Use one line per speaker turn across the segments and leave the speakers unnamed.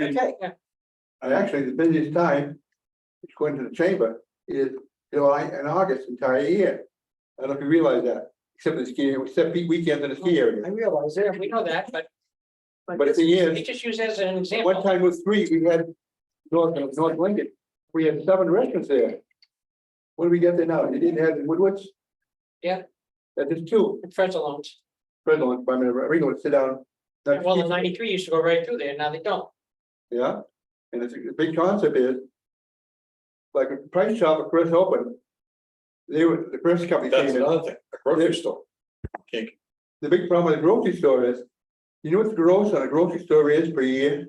Okay,
And actually, the busiest time, according to the chamber, is July and August entire year. I don't know if you realize that, except the ski, except the weekends in the ski
I
area.
realize that.
We know that, but
But the
this-
thing
we
is,
just use that as an
one
example.
time with three, we had North, North Lincoln, we had seven restaurants there. What do we get there now? You didn't have the Woodwards?
Yeah.
That is two,
Fred's loans.
Redlands, I mean, Ringo, sit down. that's
Well, the
cheap.
ninety-three used to go right through there. Now they don't.
Yeah, and it's a big concept is. Like a price shop at first opened. They were, the first company
That's
came in,
another thing, a grocery store. Can't,
the big problem with the grocery store is. You know what the gross on a grocery store is per year?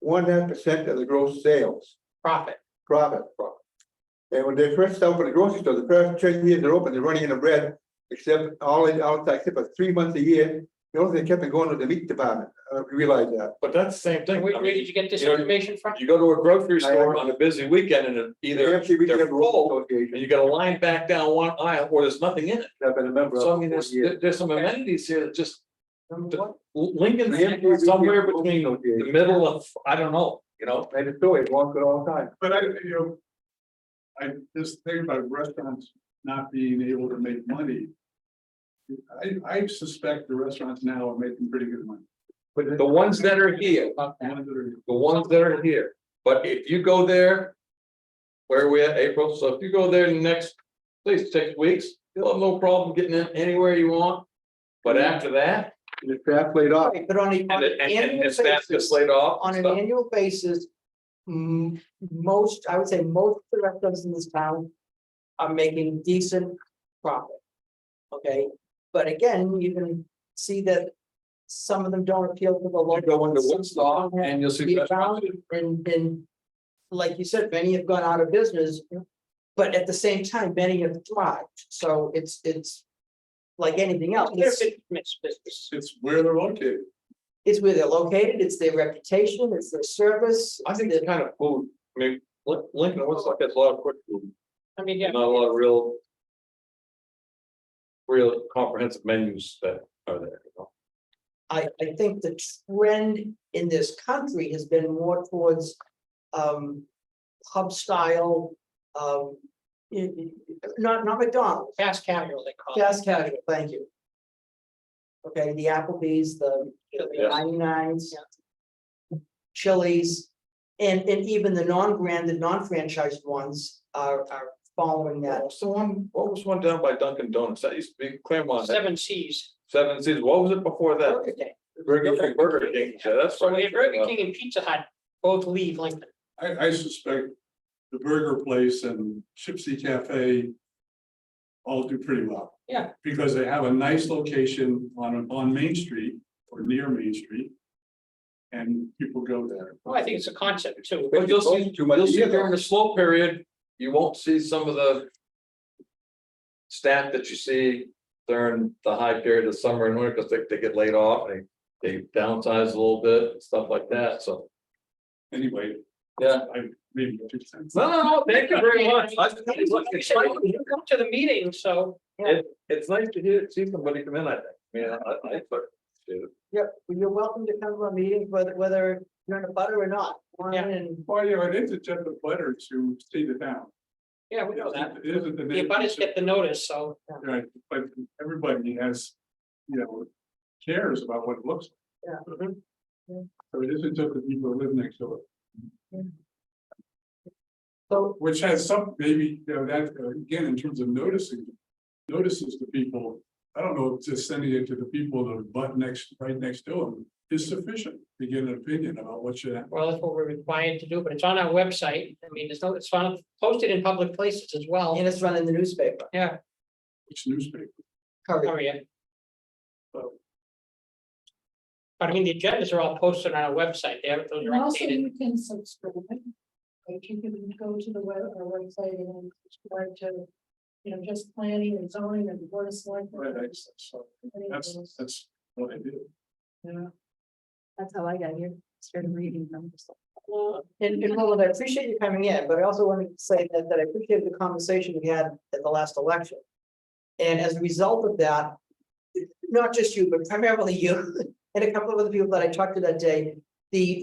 One half percent of the gross sales
Profit.
profit. from. And when they first opened the grocery store, the first ten years they're open, they're running in the bread. Except all in outside, except for three months a year, the only thing they kept on going was the meat department, I realize that.
but that's the same thing.
Where,
I
where
mean,
did you get this
you know,
information from?
you go to a grocery
I-
store on a busy weekend and it
The
either
AFC Retail
they're
Growers
full
Association,
and you got a line back down one aisle or there's nothing in it.
I've been a member of.
So I mean,
for
there's,
years.
there- there's some amenities here that just
Number one.
Lincoln's
The AFC Retail
somewhere
Growers
between the
Association.
middle of, I don't know, you know?
And it's always walked it all the time.
But I, you know. I, this thing about restaurants not being able to make money. I, I suspect the restaurants now are making pretty good money.
But
The ones that are here,
About
The
that.
ones that are-
the ones that are here, but if you go there. Where we at April, so if you go there in the next, please, six weeks, you'll have no problem getting in anywhere you want. But after that,
the staff laid off,
Right, But on a,
and
on
it-
an
and and
annual
and staff gets
basis,
laid off.
on an
stuff.
annual basis, mm, most, I would say most of the restaurants in this town are making decent profit. Okay, but again, you can see that some of them don't appeal to the
You
local.
go into
some
Woodstock
don't have
and you'll
to
see.
be
restaurants.
around And, and like you said, many have gone out of business, but at the same time, many have thrived. So it's, it's like anything else.
They're big mixed business.
It's where they're located.
It's where they're located, it's their reputation, it's their service.
I think
it's
that kind of food, I mean, Lin- Lincoln looks like it's a lot of quick food,
I mean, yeah,
not a lot of real. Real comprehensive menus that are there, you know?
I, I think the trend in this country has been more towards um hub style, um, y- y- not, not McDonald's,
fast casual they call it.
fast casual, thank you. Okay, the Applebee's, the
Yeah.
ninety nines. Chili's, and, and even the non-branded, non-franchised ones are, are following that.
What was the one, what was one down by Dunkin' Donuts? That used to be Claremont, that-
Seven Cs.
Seven Seas. What was it before that?
Burger King.
Burger King, Burger King, yeah, that's.
So we
right.
have Burger King and Pizza Hut both leave Lincoln.
I, I suspect the burger place and Gypsy Cafe. All do pretty well.
Yeah.
Because they have a nice location on, on Main Street or near Main Street. And people go there.
Well, I think it's a concept too.
But you'll see,
Too much
you'll see
either.
during the slow period, you won't see some of the. Staff that you see during the high period of summer and winter, because they, they get laid off, they, they downsize a little bit, and stuff like that, so.
Anyway.
Yeah.
I maybe two cents.
No, no, no, thank you very much. I-
Like you said, You you come to the meeting, so
It's nice to hear, see somebody come in, I think, yeah, I, I, but.
Yep, well, you're welcome to come to our meetings, whether, whether you're in a butter or not. Come on
Yeah.
in.
Well, you know, it is a jet of butter to see the town.
yeah, we know that.
It isn't the.
The abutters get the notice, so
Right, but everybody has, you know, cares about what it looks. like.
Yeah.
Mhm.
Yeah.
So it isn't just the people who live next door,
So,
which has some, maybe, you know, that, uh, again, in terms of noticing, notices to people. I don't know, if just sending it to the people that are butt next, right next to them is sufficient to get an opinion about what should happen.
well, that's what we're required to do, but it's on our website. I mean, it's no, it's found, posted in public places as well.
and it's running the newspaper,
Yeah,
which newspaper.
cover.
oh, yeah. But I mean, the agendas are all posted on our website. They have, those are
And also
updated.
you can subscribe. Like you can go to the web, our website and subscribe to, you know, just planning and zoning and the board of selectmen.
Right, I- so
Any of
That's,
those.
that's what I did.
Yeah. That's how I got here, started reading them.
Well, And, and Roland, I appreciate you coming in, but I also want to say that, that I appreciate the conversation we had at the last election. And as a result of that, not just you, but primarily you, and a couple of other people that I talked to that day, the